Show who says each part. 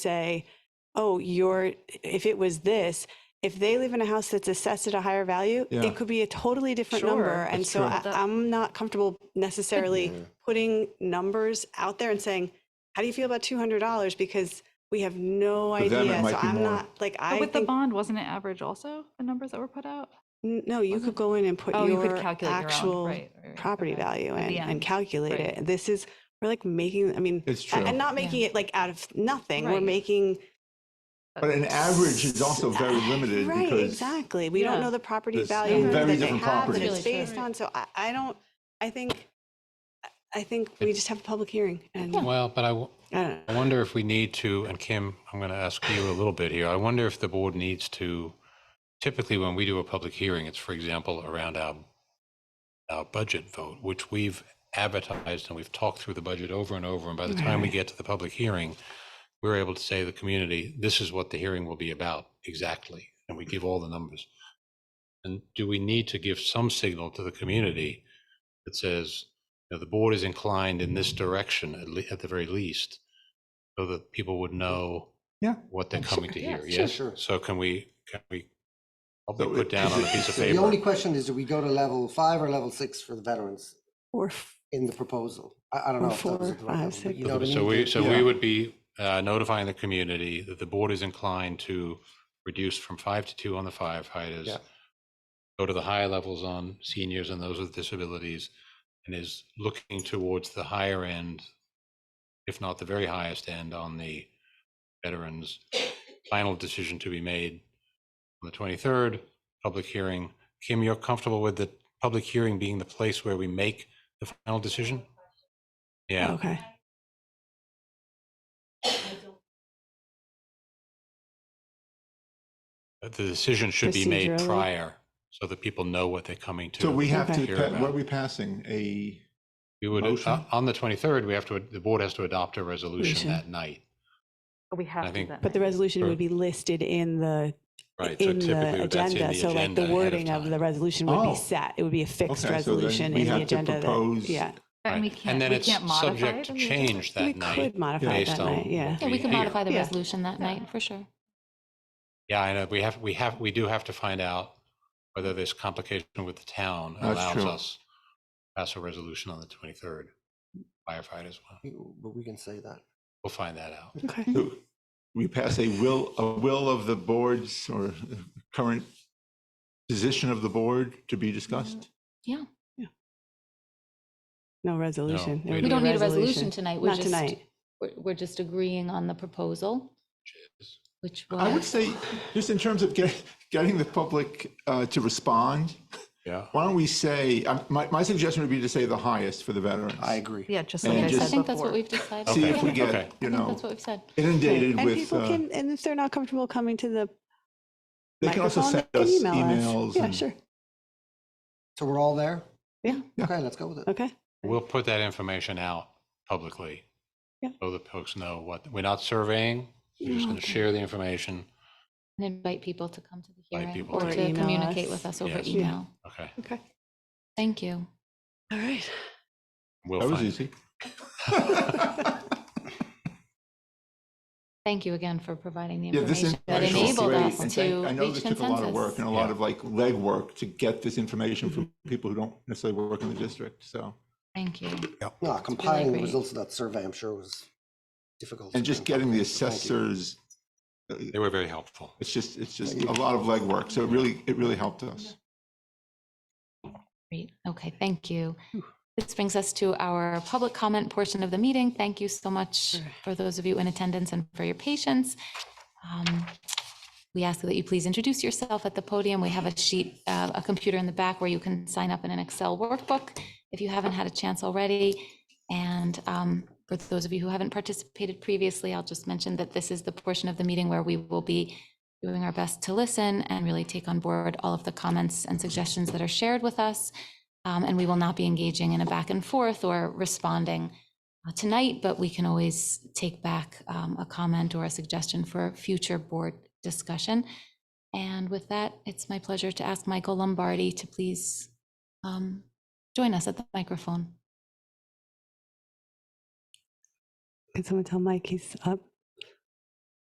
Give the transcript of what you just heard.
Speaker 1: say, oh, you're, if it was this, if they live in a house that's assessed at a higher value,
Speaker 2: Yeah.
Speaker 1: it could be a totally different
Speaker 3: Sure.
Speaker 1: number. And
Speaker 2: That's
Speaker 1: so
Speaker 2: true. Mm-hmm.
Speaker 1: I,
Speaker 3: That-
Speaker 1: I'm not comfortable necessarily putting numbers out there and saying, how do you feel about $200? Because we have no
Speaker 2: For them, it
Speaker 1: idea.
Speaker 2: might
Speaker 1: So
Speaker 2: be
Speaker 1: I'm
Speaker 2: more.
Speaker 1: not like,
Speaker 3: But
Speaker 1: I
Speaker 3: with the
Speaker 1: think,
Speaker 3: bond, wasn't it average also, the numbers that were put out?
Speaker 1: n- no, you could
Speaker 3: wasn't-
Speaker 1: go in and put
Speaker 3: Oh, you could
Speaker 1: your
Speaker 3: calculate your own,
Speaker 1: actual
Speaker 3: right, right, right,
Speaker 1: property
Speaker 3: okay.
Speaker 1: value
Speaker 3: At the
Speaker 1: in and
Speaker 3: end,
Speaker 1: calculate
Speaker 3: right.
Speaker 1: it. This is, we're like making, I mean,
Speaker 2: It's
Speaker 1: a-
Speaker 2: true.
Speaker 1: and not making it like out of nothing. We're
Speaker 3: Right.
Speaker 1: making
Speaker 2: But an average is also very limited
Speaker 1: Right,
Speaker 2: because
Speaker 1: exactly. We don't
Speaker 3: Yeah.
Speaker 1: know the property
Speaker 2: There's
Speaker 1: value
Speaker 3: very
Speaker 1: that they
Speaker 2: different
Speaker 1: have that
Speaker 2: properties.
Speaker 1: it's
Speaker 3: Really true.
Speaker 1: based on. So I, I don't, I think, I think we just have a public hearing and I
Speaker 4: Well, but I, w-
Speaker 1: don't know.
Speaker 4: I wonder if we need to, and Kim, I'm going to ask you a little bit here. I wonder if the board needs to, typically when we do a public hearing, it's for example around our, our budget vote, which we've advertised and we've talked through the budget over and over. And by the time we get to the public hearing, we're able to say to the community, this is what the hearing will be about exactly. And we give all the numbers. And do we need to give some signal to the community that says, you know, the board is inclined in this direction at, le- at the very least, so that people would know
Speaker 2: Yeah.
Speaker 4: what they're coming to
Speaker 3: Yeah,
Speaker 4: hear.
Speaker 3: sure,
Speaker 4: Yes.
Speaker 5: sure.
Speaker 4: So can we can we I'll
Speaker 2: So
Speaker 4: be put
Speaker 2: it-
Speaker 4: down
Speaker 2: is
Speaker 4: on a
Speaker 2: it-
Speaker 4: piece of
Speaker 2: so
Speaker 5: The only
Speaker 4: paper?
Speaker 5: question is, do we go to level five or level six for the veterans
Speaker 1: Or f-
Speaker 5: in the proposal? I, I don't
Speaker 1: Or
Speaker 5: know. if that was
Speaker 1: four,
Speaker 5: the right
Speaker 1: five,
Speaker 5: level, but
Speaker 1: six.
Speaker 5: You know what I mean?
Speaker 4: so we so
Speaker 2: Yeah.
Speaker 4: we would be uh, notifying the community that the board is inclined to reduce from five to two on the firefighters,
Speaker 5: Yeah.
Speaker 4: go to the higher levels on seniors and those with disabilities, and is looking towards the higher end, if not the very highest end, on the veterans. Final decision to be made on the 23rd, public hearing. Kim, you're comfortable with the public hearing being the place where we make the final decision? Yeah,
Speaker 1: Okay.
Speaker 4: but the decision should be made
Speaker 1: Procedurally.
Speaker 4: prior so that people know what they're coming to.
Speaker 2: So we have to,
Speaker 4: hear
Speaker 2: pa-
Speaker 4: about.
Speaker 2: what are we passing? A,
Speaker 4: We would,
Speaker 2: Motion?
Speaker 4: uh, on the 23rd, we have to, the board has to adopt a resolution
Speaker 1: Resolution.
Speaker 4: that night.
Speaker 3: We
Speaker 4: I
Speaker 3: have
Speaker 4: to think-
Speaker 3: to.
Speaker 1: But the resolution
Speaker 4: Sure.
Speaker 1: would be listed in the,
Speaker 4: Right. So
Speaker 1: in the
Speaker 4: typically that's in
Speaker 1: agenda. So like
Speaker 4: agenda
Speaker 1: the
Speaker 4: ahead
Speaker 1: wording of
Speaker 4: time.
Speaker 1: the resolution would
Speaker 2: Oh.
Speaker 1: be set. It would be a fixed
Speaker 2: Okay, so then
Speaker 1: resolution
Speaker 2: we
Speaker 1: in the
Speaker 2: have to
Speaker 1: agenda. that-
Speaker 2: propose-
Speaker 1: Yeah.
Speaker 4: Right.
Speaker 3: And we
Speaker 4: And
Speaker 3: can't,
Speaker 4: then
Speaker 3: we
Speaker 4: it's
Speaker 3: can't modify it.
Speaker 4: subject to
Speaker 3: in the agenda?
Speaker 4: change
Speaker 1: We
Speaker 4: that night.
Speaker 1: could modify it
Speaker 4: based
Speaker 1: that
Speaker 4: on-
Speaker 1: night. Yeah.
Speaker 6: Yeah, we can
Speaker 4: Yeah.
Speaker 6: modify the
Speaker 1: Yeah.
Speaker 6: resolution that night for sure.
Speaker 4: Yeah, I know. We have, we have, we do have to find out whether this complication with the town
Speaker 2: That's
Speaker 4: allows
Speaker 2: true.
Speaker 4: us to pass a resolution on the 23rd. Firefighters, will-
Speaker 5: You- But we can say that.
Speaker 4: we'll find that out.
Speaker 1: Okay.
Speaker 2: so we pass a will, a will of the boards or current position of the board to be
Speaker 1: Mm,
Speaker 2: discussed?
Speaker 6: Yeah.
Speaker 1: No resolution. There
Speaker 4: we
Speaker 1: would
Speaker 6: We
Speaker 1: be
Speaker 6: don't need a resolution tonight. We're
Speaker 1: Not
Speaker 6: just,
Speaker 1: tonight.
Speaker 6: we're, we're just agreeing on the proposal, which
Speaker 2: I would
Speaker 6: was,
Speaker 2: say, just in terms of get- getting the public uh, to respond,
Speaker 4: Yeah.
Speaker 2: why don't we say, um, my, my suggestion would be to say the highest for the veterans.
Speaker 5: I agree.
Speaker 3: Yeah, just
Speaker 2: And
Speaker 3: like I
Speaker 2: just-
Speaker 3: said
Speaker 6: I think that's
Speaker 3: before.
Speaker 6: what we've decided.
Speaker 2: See if
Speaker 6: Yeah,
Speaker 2: we
Speaker 4: Okay.
Speaker 2: get, you
Speaker 6: I think
Speaker 2: know,
Speaker 6: that's what we've said.
Speaker 2: inundated
Speaker 1: And
Speaker 2: with,
Speaker 1: people
Speaker 2: uh,
Speaker 1: can, and if they're not comfortable coming to the
Speaker 2: they can also
Speaker 1: microphone,
Speaker 2: send
Speaker 1: they can
Speaker 2: us
Speaker 1: email
Speaker 2: emails.
Speaker 1: Yeah,
Speaker 2: and-
Speaker 1: sure.
Speaker 5: So we're all there?
Speaker 1: Yeah.
Speaker 2: Yeah.
Speaker 5: Okay, let's go with it.
Speaker 1: Okay.
Speaker 4: We'll put that information out publicly.
Speaker 1: Yeah.
Speaker 4: So that folks know what, we're not surveying, we're just going to
Speaker 1: Okay.
Speaker 4: share the information.
Speaker 6: And invite people to come to the
Speaker 4: Invite
Speaker 6: hearing
Speaker 4: people
Speaker 6: or
Speaker 4: to-
Speaker 1: Or
Speaker 6: to
Speaker 1: email
Speaker 6: communicate
Speaker 1: us.
Speaker 6: with us over
Speaker 4: Yes.
Speaker 1: Yeah.
Speaker 6: email.
Speaker 4: Okay.
Speaker 1: Okay.
Speaker 6: Thank you.
Speaker 1: All right.
Speaker 4: We'll
Speaker 2: That was
Speaker 4: find-
Speaker 2: easy.
Speaker 6: Thank you again for providing the
Speaker 2: Yeah, this
Speaker 6: information that
Speaker 2: information was
Speaker 6: enabled
Speaker 2: great,
Speaker 6: us
Speaker 2: and thank-
Speaker 6: to
Speaker 2: I know
Speaker 6: reach
Speaker 2: this took a lot of work
Speaker 6: consensus. Mm-hmm.
Speaker 2: and a lot of like legwork to get this information from people who don't necessarily work in the district, so.
Speaker 6: Thank you.
Speaker 5: No, compiling the
Speaker 6: great.
Speaker 5: results of that survey, I'm sure was difficult.
Speaker 2: And just getting the
Speaker 5: Thank you.
Speaker 2: assessors,
Speaker 4: They were very helpful.
Speaker 2: it's just, it's just a lot of legwork, so it really, it really helped us.
Speaker 6: Great. Okay, thank you. This brings us to our public comment portion of the meeting. Thank you so much for those of you in attendance and for your patience. Um, We ask that you please introduce yourself at the podium. We have a sheet, uh, a computer in the back where you can sign up in an Excel workbook if you haven't had a chance already. And um, for those of you who haven't participated previously, I'll just mention that this is the portion of the meeting where we will be doing our best to listen and really take on board all of the comments and suggestions that are shared with us. Um, And we will not be engaging in a back and forth or responding uh, tonight, but we can always take back um, a comment or a suggestion for future board discussion. And with that, it's my pleasure to ask Michael Lombardi to please um, join us at the microphone.
Speaker 1: Can someone tell Mike he's up?